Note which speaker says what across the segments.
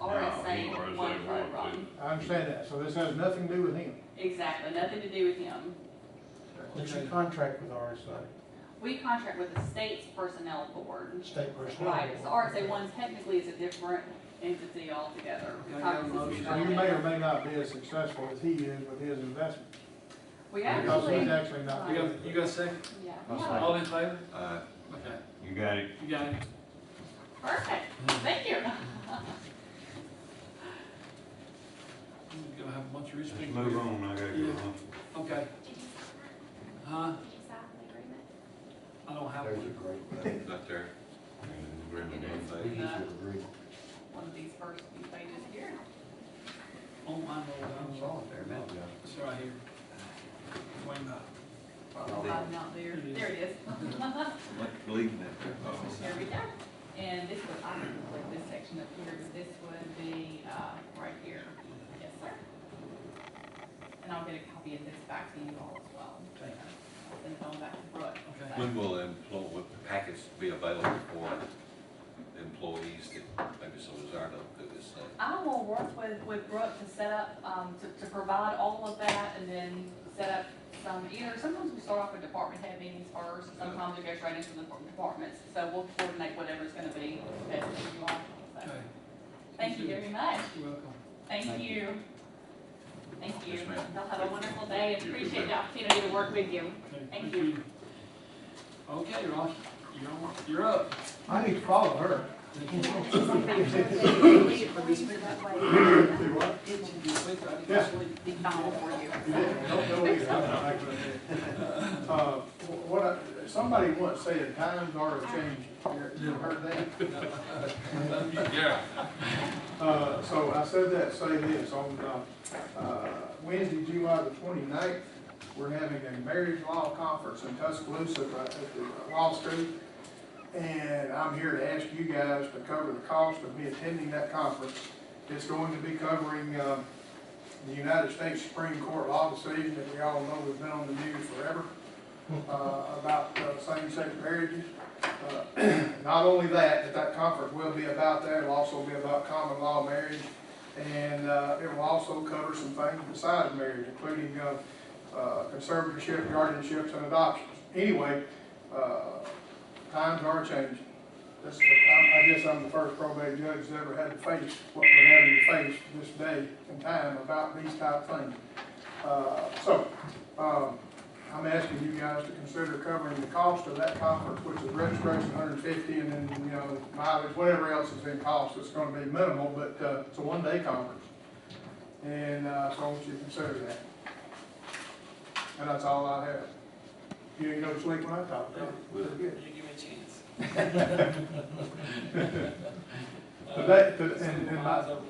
Speaker 1: him or as
Speaker 2: one
Speaker 1: they want
Speaker 2: program.
Speaker 1: to.
Speaker 3: I understand that, so this has nothing to do with him.
Speaker 2: Exactly, nothing to do with him.
Speaker 4: What's your contract with uh, RSA,
Speaker 2: We contract with the state's personnel board.
Speaker 4: state personnel?
Speaker 2: Right, so RSA one technically is a different entity altogether.
Speaker 3: Can I have a motion? So you may or may not be as successful as he is with his investment,
Speaker 2: We
Speaker 3: because he's
Speaker 2: actually,
Speaker 3: actually not.
Speaker 5: You got, you got a second?
Speaker 2: yeah,
Speaker 6: I'll
Speaker 2: yeah.
Speaker 6: second.
Speaker 5: All in favor?
Speaker 6: Uh,
Speaker 5: Okay,
Speaker 6: you got it.
Speaker 5: you got it.
Speaker 2: perfect, thank you.
Speaker 5: You're gonna have a bunch of rich
Speaker 6: Let's
Speaker 5: people.
Speaker 6: move on, I gotta go
Speaker 5: Yeah.
Speaker 6: home.
Speaker 5: Okay, huh?
Speaker 7: Did you sign an agreement?
Speaker 5: I don't have
Speaker 8: There's a
Speaker 5: one.
Speaker 8: great one.
Speaker 6: Not there. And we're in the wrong
Speaker 8: We
Speaker 6: thing.
Speaker 8: usually agree.
Speaker 2: One of these first few pages here.
Speaker 5: Oh, I know, I'm sorry. It's right here. Wayne,
Speaker 2: Well, I'm not there, there it is.
Speaker 6: Like uh, leaving it there.
Speaker 2: There we go. And this was, I didn't put this section up here, but this would be, uh, right here. Yes, sir. And I'll get a copy of this back to you all as well.
Speaker 5: Okay.
Speaker 2: I'll Send it on back to Brooke.
Speaker 5: Okay.
Speaker 6: When will employ, what packets be available for employees that maybe so desire to do this thing?
Speaker 2: I will work with, with Brooke to set up, um, to, to provide all of that and then set up some, either, sometimes we start off with department head meetings first, sometimes it goes right into the departments. So we'll coordinate whatever's gonna be best for you all. So,
Speaker 5: Okay,
Speaker 2: Thank you very much.
Speaker 5: you're welcome.
Speaker 2: Thank you. Thank you.
Speaker 6: Yes, ma'am.
Speaker 2: Y'all have a wonderful day and
Speaker 6: You too,
Speaker 2: appreciate the
Speaker 6: ma'am.
Speaker 2: opportunity to work with you.
Speaker 5: Okay,
Speaker 2: Thank you.
Speaker 5: Okay, Rocky, you're on, you're up.
Speaker 4: I need to follow her.
Speaker 5: Itching to sleep, I need
Speaker 3: Yeah.
Speaker 5: to sleep.
Speaker 2: Be fine for you.
Speaker 3: Don't go either. Uh, wh- What, I- somebody once said, times are changing. You ever heard that?
Speaker 6: Yeah.
Speaker 3: Uh, so I said that, to say this, on, uh, uh, Wednesday, July the 29th, we're having a marriage law conference in Tuscaloosa right at the law school. And I'm here to ask you guys to cover the cost of me attending that conference. It's going to be covering, um, the United States Supreme Court law decision that we all know has been on the news forever, uh, about uh, same-sex marriages. Uh, not only that, but that conference will be about that, it'll also be about common law marriage, and, uh, it will also cover some things besides marriage, including, uh, uh, conservatorship, guardianships, and adoptions. Anyway, uh, times are changing. This, is- I, I guess I'm the first probate judge that's ever had to face what we're having to face this day and time about these type things. Uh, so, um, I'm asking you guys to consider covering the cost of that conference, which is registration, hundred and fifty, and then, you know, mileage, whatever else is in cost, it's gonna be minimal, but, uh, it's a one-day conference. And, uh, so I want you to consider that. And that's all I have. You didn't go to sleep when I talked, huh? Pretty good.
Speaker 5: You give me a chance.
Speaker 3: Today, to- and, and
Speaker 5: Mine's
Speaker 3: by,
Speaker 5: open.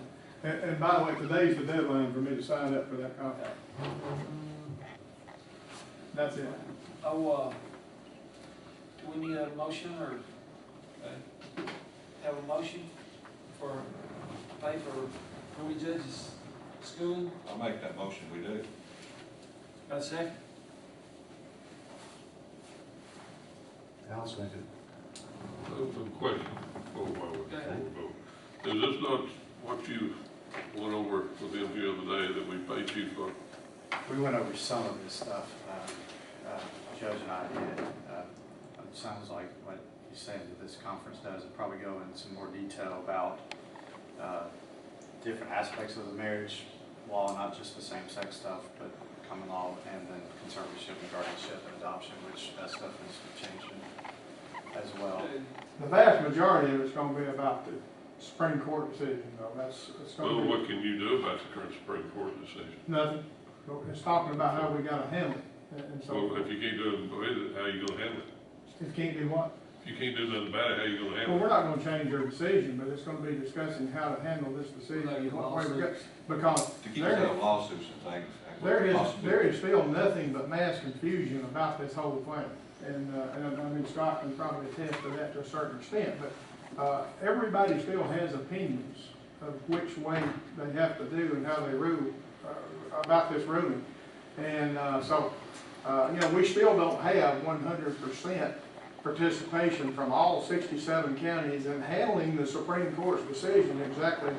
Speaker 3: and, and by the way, today's the deadline for me to sign up for that contract. That's it.
Speaker 5: Oh, uh, do we need a motion or uh, have a motion for pay for Ruby Judge's school?
Speaker 6: I'll make that motion, we do.
Speaker 5: Got a second?
Speaker 8: I'll second.
Speaker 1: Question, before I- before
Speaker 5: Go
Speaker 1: we
Speaker 5: ahead.
Speaker 1: vote. Is this not what you went over with them the other day that we paid you for?
Speaker 9: We went over some of this stuff, um, uh, Judge and I did. Uh, It sounds like what he's saying that this conference does, it'll probably go into some more detail about uh, different aspects of the marriage law, not just the same-sex stuff, but common law and then conservatorship and guardianship and adoption, which that stuff is changing as well.
Speaker 3: The vast majority of it's gonna be about the Supreme Court decision, though, that's, it's
Speaker 1: Well,
Speaker 3: gonna be
Speaker 1: what can you do about the current Supreme Court decision?
Speaker 3: nothing. But It's talking about how we gotta handle it, and- and so,
Speaker 1: Well, if you can't do it, with it, how you gonna handle it?
Speaker 3: it can't be what?
Speaker 1: If you can't do nothing about it, how you gonna
Speaker 3: Well,
Speaker 1: handle
Speaker 3: we're
Speaker 1: it?
Speaker 3: not gonna change our decision, but it's gonna be discussing how to handle this decision,
Speaker 5: Like
Speaker 3: and what way we go.
Speaker 5: lawsuits.
Speaker 3: Because
Speaker 6: To keep
Speaker 3: there,
Speaker 6: out of lawsuits and things. uh,
Speaker 3: There is, there is still nothing but mass confusion about this whole thing. And, uh, and I mean, Scott can probably attest to that to a certain extent, but, uh, everybody still has opinions of which way they have to do and how they rule, uh, about this ruling. And, uh, so, uh, you know, we still don't have one hundred percent participation from all sixty-seven counties in handling the Supreme Court's decision exactly